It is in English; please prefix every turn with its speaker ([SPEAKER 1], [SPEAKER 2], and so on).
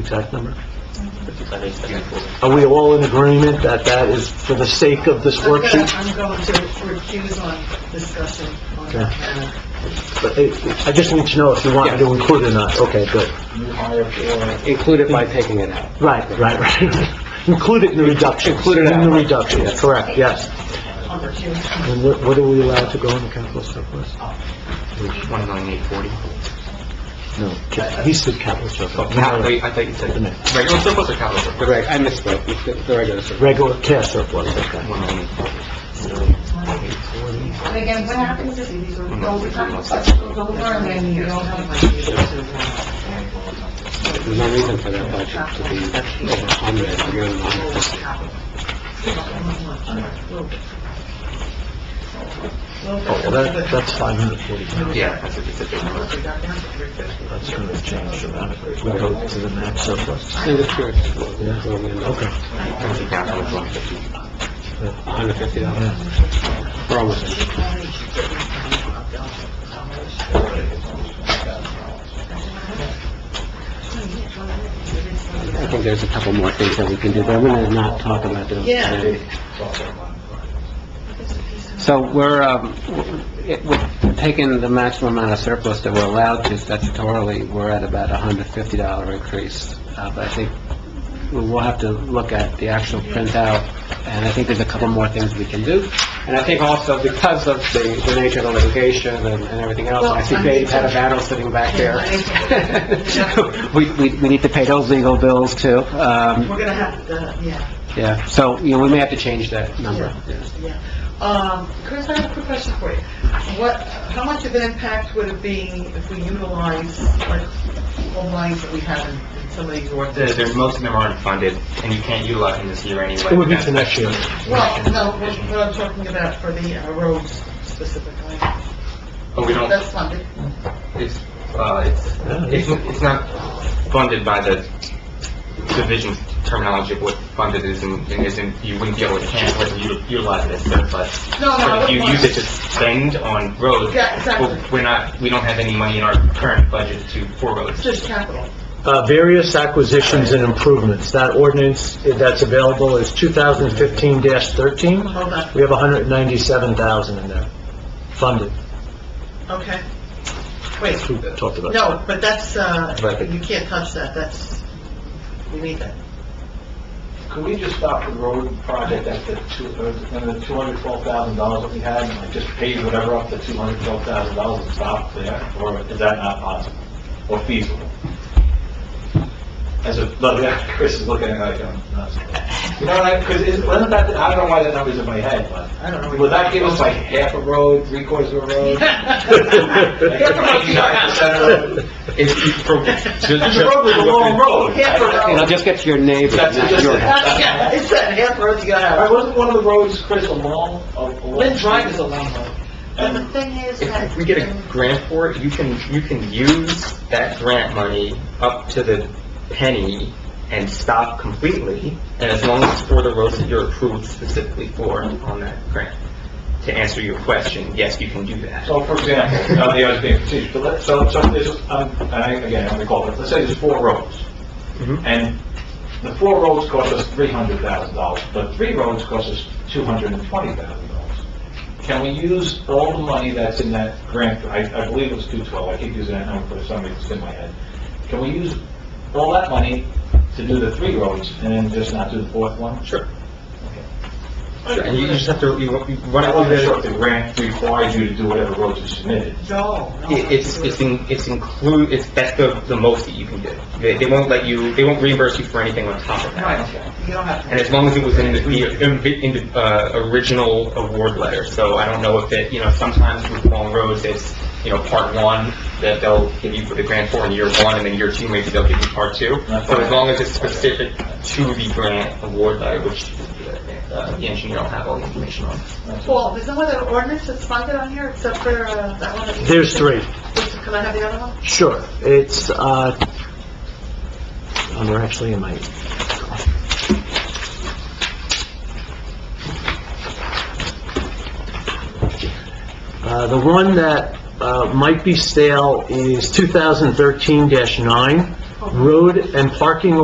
[SPEAKER 1] exact number?
[SPEAKER 2] That is difficult.
[SPEAKER 1] Are we all in agreement that that is for the sake of this
[SPEAKER 3] I'm gonna-
[SPEAKER 1] worksheet?
[SPEAKER 3] I'm going to recuse on discussion on uh, that matter.
[SPEAKER 1] But I I just need to know if you want me to include it or not. Okay, good.
[SPEAKER 4] Include it by taking it out.
[SPEAKER 1] Right, right, right. Include it in the reduction.
[SPEAKER 4] Include it
[SPEAKER 1] In the
[SPEAKER 4] out.
[SPEAKER 1] reduction, correct, yes.
[SPEAKER 3] on the June.
[SPEAKER 1] And what what are we allowed to go in the capital surplus?
[SPEAKER 2] Twenty-nine, eight forty.
[SPEAKER 1] No, ca- he said capital surplus. No,
[SPEAKER 2] Wait, I thought you said, regular surplus or capital surplus?
[SPEAKER 4] Correct, I misspoke, It's the the regular surplus.
[SPEAKER 1] Regular cash surplus, okay.
[SPEAKER 3] And again, what happens if you go over and then you don't have money to, uh,
[SPEAKER 4] There's no reason for that budget to be over 100, you're in the 100.
[SPEAKER 3] capital?
[SPEAKER 1] Oh, well, that, that's 540.
[SPEAKER 2] Yeah, that's a, that's a big number.
[SPEAKER 1] That's going to change dramatically. We go to the max surplus.
[SPEAKER 4] No, that's yours.
[SPEAKER 1] Yeah. Okay.
[SPEAKER 2] Comes to capital is one fifty.
[SPEAKER 4] $150.
[SPEAKER 1] Yeah.
[SPEAKER 4] We're almost there. I think there's a couple more things that we can do, but I'm going to not talk about those
[SPEAKER 3] Yeah.
[SPEAKER 4] today. So we're, um, w- it- we're taking the maximum amount of surplus that we're allowed to statutorily, we're at about a $150 increase. Uh, But I think we will have to look at the actual printout, and I think there's a couple more things we can do. And I think also because of the the nature of the litigation and and everything else, and I see Dave's had a battle sitting back there. We, we, we need to pay those legal bills too. Um,
[SPEAKER 3] We're gonna have to, yeah,
[SPEAKER 4] yeah, so, you know, we may have to change that number.
[SPEAKER 3] yeah. Um, Chris, I have a quick question for you. What, how much of an impact would it be if we utilize, like, all lines that we have in in some of these
[SPEAKER 2] The,
[SPEAKER 3] ordinances?
[SPEAKER 2] there's, most of them aren't funded, and you can't utilize them this year anyway.
[SPEAKER 1] It would be to next year.
[SPEAKER 3] Well, no, what what I'm talking about for the uh, roads specifically,
[SPEAKER 2] But Oh, we don't,
[SPEAKER 3] that's funded.
[SPEAKER 2] it's, uh, it's, it's, it's not funded by the division terminology of what funded is and, and isn't, you wouldn't be able to cancel it and u- utilize it as surplus.
[SPEAKER 3] No, no,
[SPEAKER 2] But
[SPEAKER 3] I
[SPEAKER 2] if you
[SPEAKER 3] wouldn't
[SPEAKER 2] use it
[SPEAKER 3] want-
[SPEAKER 2] to spend on roads,
[SPEAKER 3] Yeah, exactly.
[SPEAKER 2] well, we're not, we don't have any money in our current budget to, for roads.
[SPEAKER 3] just capital.
[SPEAKER 1] Uh, various acquisitions and improvements. That ordinance that's available is 2015-13.
[SPEAKER 3] Hold on,
[SPEAKER 1] We have 197,000 in there, funded.
[SPEAKER 3] okay. Wait,
[SPEAKER 1] We talked about that.
[SPEAKER 3] no, but that's, uh,
[SPEAKER 1] Right.
[SPEAKER 3] you can't touch that, that's, we need that.
[SPEAKER 5] Could we just stop the road project at the two, uh, and the two hundred twelve thousand dollars that we had, and like just pay whatever up to two hundred twelve thousand dollars and stop there? Or is that not possible or feasible? As a, look, yeah, Chris is looking at it, I'm not, you know, what? because is, wasn't that, I don't know why that number's in my head, but.
[SPEAKER 3] I don't know.
[SPEAKER 5] Would that give us like half a road, three quarters of a road?
[SPEAKER 2] It's, it's broken.
[SPEAKER 5] Because the road was a long road.
[SPEAKER 3] Half a road.
[SPEAKER 4] You know, just get to your neighbor,
[SPEAKER 5] That's
[SPEAKER 4] not
[SPEAKER 5] just
[SPEAKER 4] your
[SPEAKER 5] it.
[SPEAKER 3] Yeah, It's that half road you
[SPEAKER 5] All right,
[SPEAKER 3] gotta
[SPEAKER 5] wasn't one of the roads, Oh, Chris, a long, a long?
[SPEAKER 3] have. Lynn Drive is a long road. But the
[SPEAKER 5] And-
[SPEAKER 3] thing is
[SPEAKER 2] If we get a grant for it, you can, you can use that grant money up to the penny and stop completely, and as long as it's for the roads that you're approved specifically for on that grant. To answer your question, yes, you can do that.
[SPEAKER 5] So for example, now the others being confused, but let's, so, so there's, um, and I, again, I'm recall, but let's say there's four roads.
[SPEAKER 2] Mhm.
[SPEAKER 5] And the four roads cost us three hundred thousand dollars, but three roads cost us two hundred and twenty thousand dollars. Can we use all the money that's in that grant, I, I believe it was two twelve, I keep using that number for some reason, it's in my head. Can we use all that money to do the three roads and then just not do the fourth one?
[SPEAKER 2] Sure. Sure, And you just have to, you you run
[SPEAKER 5] I
[SPEAKER 2] it through
[SPEAKER 5] wasn't sure if
[SPEAKER 2] the,
[SPEAKER 5] the grant requires you to do whatever roads you submitted.
[SPEAKER 3] No, no.
[SPEAKER 2] it- it's, it's in, it's include, it's, that's the, the most that you can do. They, they won't let you, they won't reimburse you for anything on top of that.
[SPEAKER 3] Right, you don't have to.
[SPEAKER 2] And as long as it was in the, the- in the, uh, original award letter, so I don't know if it, you know, sometimes with long roads, it's, you know, part one, that they'll give you the grant for in year one, and then year two, maybe they'll give you part two. So as long as it's specific to the grant award letter, which, uh, the engineer will have all the information on.
[SPEAKER 3] Paul, there's no other ordinance that's funded on here except for uh, that one? that you-
[SPEAKER 1] There's three.
[SPEAKER 3] Can I have the other one?
[SPEAKER 1] Sure, it's, uh, oh, they're actually in my... Uh, the one that, uh, might be stale is 2013-9. road and parking